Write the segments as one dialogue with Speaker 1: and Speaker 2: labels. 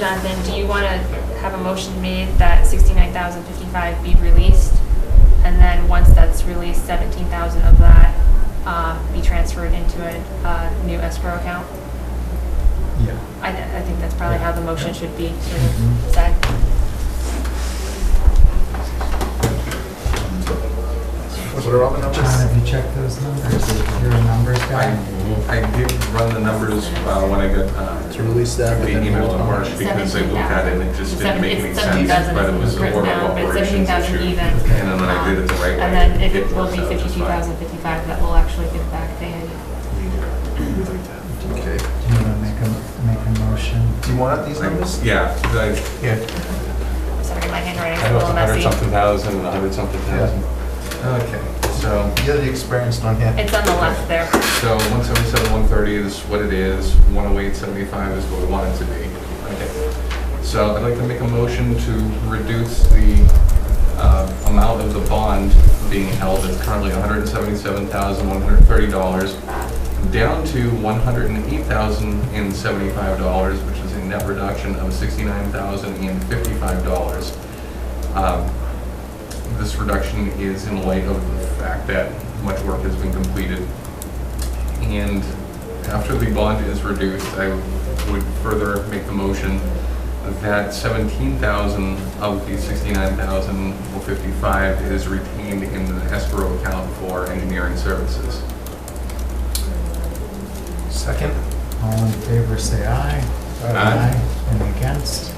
Speaker 1: Jonathan, do you want to have a motion made that 69,055 be released? And then, once that's released, 17,000 of that um, be transferred into a uh, new escrow account?
Speaker 2: Yeah.
Speaker 1: I th- I think that's probably how the motion should be sort of
Speaker 3: Mm-hmm.
Speaker 2: Mhm.
Speaker 1: said.
Speaker 2: John, have you checked those numbers? You're a numbers
Speaker 3: I,
Speaker 2: guy.
Speaker 3: I did run the numbers uh, when I got, uh,
Speaker 4: To release that, but
Speaker 3: the
Speaker 4: then
Speaker 3: email to
Speaker 4: hold on.
Speaker 3: Marsh because I looked at it and it just didn't make any
Speaker 1: It's
Speaker 3: sense,
Speaker 1: 17,000
Speaker 3: but it was
Speaker 1: is
Speaker 3: a order
Speaker 1: written
Speaker 3: of
Speaker 1: down, but it's
Speaker 3: operations
Speaker 1: 17,000
Speaker 3: issue.
Speaker 1: even.
Speaker 3: And then I did it the right way.
Speaker 1: And then it will
Speaker 3: works
Speaker 1: be
Speaker 3: out just fine.
Speaker 1: 52,055 that we'll actually give back to Andy.
Speaker 4: Okay.
Speaker 2: Do you want to make a, make a motion?
Speaker 4: Do you want these numbers?
Speaker 3: Like, Yeah, like,
Speaker 4: Yeah.
Speaker 1: Sorry, my handwriting's
Speaker 5: I
Speaker 1: a
Speaker 5: know it's
Speaker 1: little
Speaker 5: a hundred
Speaker 1: messy.
Speaker 5: something thousand, a hundred something thousand.
Speaker 3: okay, so,
Speaker 4: You're the experienced one here.
Speaker 1: It's on the left there.
Speaker 3: so one seventy-seven, one thirty is what it is, one oh eight, seventy-five is what we want it to be. Okay. So I'd like to make a motion to reduce the, uh, amount of the bond being held, it's currently hundred and seventy-seven thousand, one hundred and thirty dollars, down to one hundred and eight thousand and seventy-five dollars, which is a net reduction of sixty-nine thousand and fifty-five dollars. Um, This reduction is in light of the fact that much work has been completed. And after the bond is reduced, I would further make the motion that seventeen thousand of the sixty-nine thousand four fifty-five is retained in the escrow account for engineering services.
Speaker 4: Second?
Speaker 2: All in favor, say aye.
Speaker 3: Aye.
Speaker 2: And against?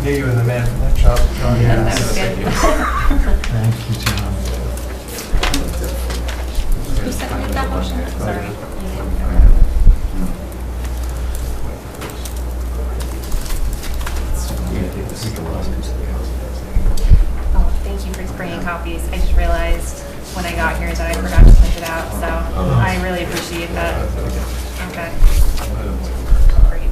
Speaker 4: Yeah, you were the man for that job. John.
Speaker 2: Yeah.
Speaker 1: That was
Speaker 3: Thank
Speaker 1: good.
Speaker 3: you.
Speaker 2: Thank you, John.
Speaker 1: Who seconded that motion? Sorry. Oh, thank you for bringing copies. I just realized when I got here that I forgot to print it out, so I really appreciate that. Okay, great.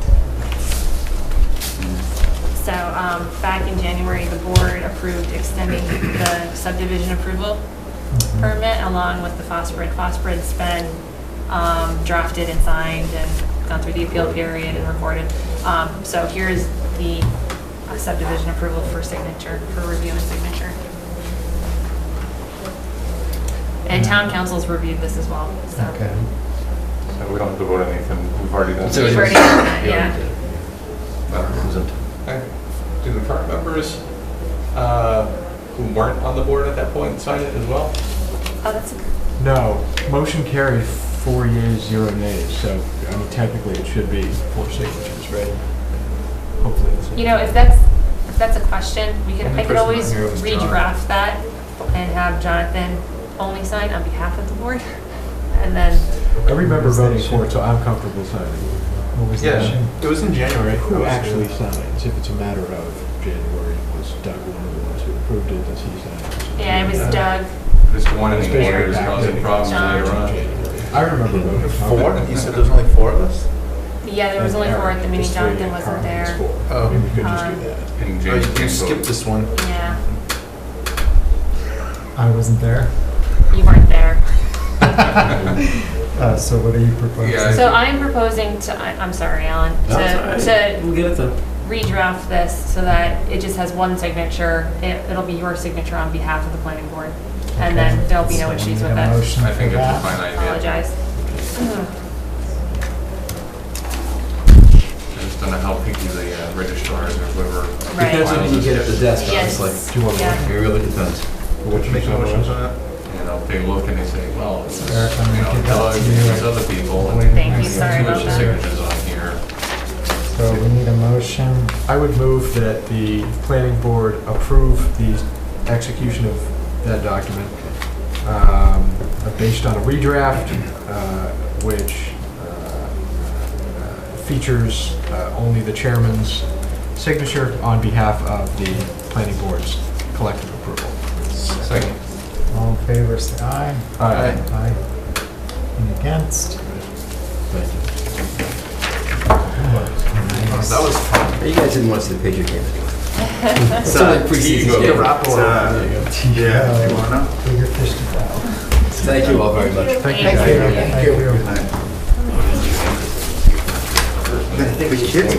Speaker 1: So, um, back in January, the board approved extending the subdivision approval
Speaker 2: Mhm.
Speaker 1: permit along with the phosphorid. Phosphorid's been um, drafted and signed and gone through the appeal period and recorded. Um, So here's the uh, subdivision approval for signature, for review and signature. And town council's reviewed this as well, so.
Speaker 2: Okay.
Speaker 5: So we don't have to vote on anything, we've already done.
Speaker 1: We've already done that, yeah.
Speaker 3: Okay. Do the current members uh, who weren't on the board at that point sign it as well?
Speaker 1: Oh, that's, a-
Speaker 6: No, motion carried four yeas, zero nays, so, I mean, technically it should be four signatures, right? Hopefully it's.
Speaker 1: you know, if that's, if that's a question, we could,
Speaker 3: Only
Speaker 1: I could
Speaker 3: person
Speaker 1: always
Speaker 3: on here was John.
Speaker 1: redraft that and have Jonathan only sign on behalf of the board. And then
Speaker 6: I remember voting for it, so I'm comfortable signing.
Speaker 2: What was that? Shane?
Speaker 4: It was in January.
Speaker 6: Who actually signs, if it's a matter of January, was Doug one of the ones who approved it, does he sign?
Speaker 1: Yeah, it was Doug.
Speaker 3: Just one in the order is
Speaker 6: Especially
Speaker 3: causing
Speaker 6: back
Speaker 3: problems
Speaker 1: then.
Speaker 3: later on.
Speaker 6: I remember voting for
Speaker 4: Four?
Speaker 6: it.
Speaker 4: You said there's only four of us?
Speaker 1: Yeah, there was only four at the meeting, Jonathan wasn't there.
Speaker 4: Oh.
Speaker 6: Oh, we could just
Speaker 1: Um,
Speaker 6: do that.
Speaker 3: And
Speaker 4: Oh,
Speaker 3: James
Speaker 4: you- you
Speaker 3: can't vote.
Speaker 4: skipped this one.
Speaker 1: Yeah,
Speaker 2: I wasn't there.
Speaker 1: you weren't there.
Speaker 2: Uh, so what are you proposing?
Speaker 3: Yeah, I
Speaker 1: So
Speaker 3: think-
Speaker 1: I'm proposing to, I- I'm sorry, Alan, to, to redraft this so that it just has one signature. It, it'll be your signature on behalf of the planning board. And then
Speaker 2: Okay.
Speaker 1: there'll be no
Speaker 2: So
Speaker 1: issues
Speaker 2: we
Speaker 1: with
Speaker 2: need a
Speaker 1: it.
Speaker 2: motion
Speaker 3: I think
Speaker 2: for
Speaker 3: that's a
Speaker 2: that.
Speaker 3: fine idea.
Speaker 1: Apologize.
Speaker 3: I just don't know how picky the uh, registrars or whoever.
Speaker 1: Right. Depends
Speaker 3: on you get at the desk.
Speaker 1: Yes.
Speaker 6: Do you want more?
Speaker 1: Yeah.
Speaker 6: What's your
Speaker 4: Make
Speaker 6: sign
Speaker 4: motions
Speaker 6: was?
Speaker 4: on that?
Speaker 3: You know, they look and they say, well, it's, you
Speaker 2: Eric, I'm
Speaker 3: know,
Speaker 2: gonna give
Speaker 3: Doug,
Speaker 2: that to you.
Speaker 3: there's other people. and
Speaker 1: Thank you,
Speaker 3: there's
Speaker 1: sorry
Speaker 3: too much
Speaker 1: about that.
Speaker 3: signatures on here.
Speaker 2: So we need a motion.
Speaker 6: I would move that the planning board approve the execution of that document um, based on a redraft, uh, which uh, uh, features uh, only the chairman's signature on behalf of the planning board's collective approval.
Speaker 3: Second.
Speaker 2: All in favor, say aye.
Speaker 6: Aye.
Speaker 2: Aye. And against?
Speaker 4: That was fun.
Speaker 7: You guys didn't watch the Patriot game anyway. It's not like preseason
Speaker 3: Ego.
Speaker 7: game.
Speaker 4: Rapport.
Speaker 2: Yeah.
Speaker 4: You wanna?
Speaker 2: Bigger fish to fry.
Speaker 7: Thank you all very much.
Speaker 6: Thank you,
Speaker 1: Thank
Speaker 6: guys.
Speaker 2: Thank you.
Speaker 4: Good night.
Speaker 3: I
Speaker 4: I think we should.